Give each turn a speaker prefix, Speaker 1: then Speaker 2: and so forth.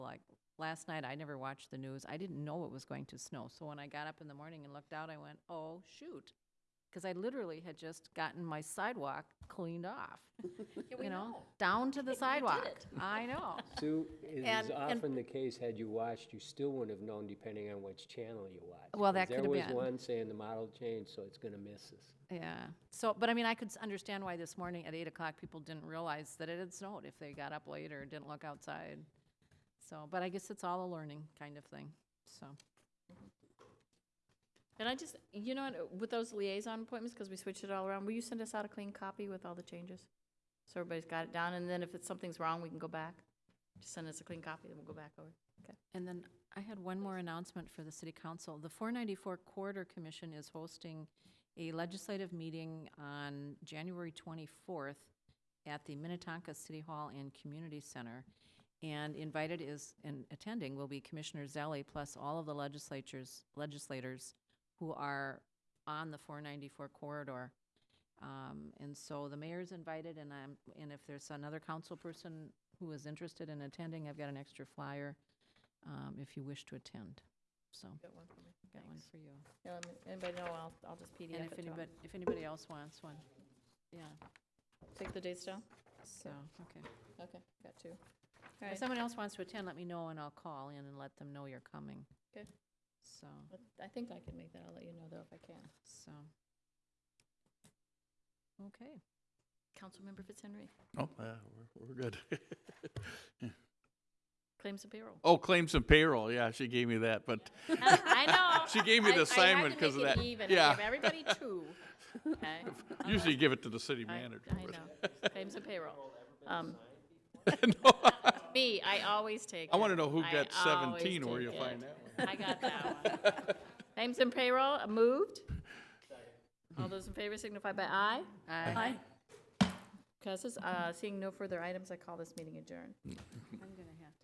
Speaker 1: last night, I never watched the news. I didn't know it was going to snow. So when I got up in the morning and looked out, I went, oh, shoot. Because I literally had just gotten my sidewalk cleaned off, you know, down to the sidewalk. I know.
Speaker 2: Sue, as
Speaker 1: And- and-
Speaker 2: is often the case, had you watched, you still wouldn't have known depending on which channel you watched.
Speaker 1: Well,
Speaker 2: 'cause
Speaker 1: that could've
Speaker 2: There was
Speaker 1: been.
Speaker 2: one saying the model changed, so it's gonna miss us.
Speaker 1: Yeah. So, but I mean, I could s- understand why this morning at eight o'clock, people didn't realize that it had snowed if they got up late or didn't look outside. So, but I guess it's all a learning kind of thing, so.
Speaker 3: And I just, you know, what, with those liaison appointments, because we switched it all around, will you send us out a clean copy with all the changes? So everybody's got it down, and then if it's, something's wrong, we can go back. Just send us a clean copy, then we'll go back over.
Speaker 1: And then I had one more announcement for the city council. The 494 Corridor Commission is hosting a legislative meeting on January 24th at the Minnetonka City Hall and Community Center. And invited is, and attending will be Commissioner Zelli plus all of the legislatures, legislators who are on the 494 corridor. Um, And so the mayor's invited, and I'm, and if there's another council person who is interested in attending, I've got an extra flyer um, if you wish to attend. So,
Speaker 3: Got one for me.
Speaker 1: got one for you.
Speaker 3: Yeah, um, Anybody know, I'll, I'll just
Speaker 1: And
Speaker 3: PDF
Speaker 1: if
Speaker 3: it to 'em.
Speaker 1: anybody, if anybody else wants one, yeah,
Speaker 3: Take the dates down?
Speaker 1: so, okay.
Speaker 3: Okay, got two. All
Speaker 1: If
Speaker 3: right,
Speaker 1: someone else wants to attend, let me know and I'll call in and let them know you're coming.
Speaker 3: Okay.
Speaker 1: So,
Speaker 3: I think I can make that, I'll let you know though if I can.
Speaker 1: so. Okay,
Speaker 3: Councilmember Fitzhenry,
Speaker 4: Oh, yeah, we're, we're good.
Speaker 3: claims and payroll.
Speaker 4: oh, claims and payroll. Yeah, she gave me that, but
Speaker 3: I know.
Speaker 4: She gave me
Speaker 3: I- I had
Speaker 4: the
Speaker 3: to
Speaker 4: assignment 'cause of
Speaker 3: make it
Speaker 4: that.
Speaker 3: even.
Speaker 4: Yeah.
Speaker 3: I gave everybody two. Okay.
Speaker 4: usually give it to the city
Speaker 3: I-
Speaker 4: manager.
Speaker 3: I know, claims and payroll. Um,
Speaker 4: No,
Speaker 3: Me, I always take
Speaker 4: I want
Speaker 3: it.
Speaker 4: to know who
Speaker 3: I
Speaker 4: got
Speaker 3: always
Speaker 4: 17 where
Speaker 3: take
Speaker 4: you
Speaker 3: it.
Speaker 4: find that one.
Speaker 3: I got that one. Claims and payroll, uh, moved.
Speaker 4: Hmm.
Speaker 3: All those in favor signify by aye.
Speaker 1: I,
Speaker 3: Passes. Uh, Seeing no further items, I call this meeting adjourned.
Speaker 1: I'm gonna have to.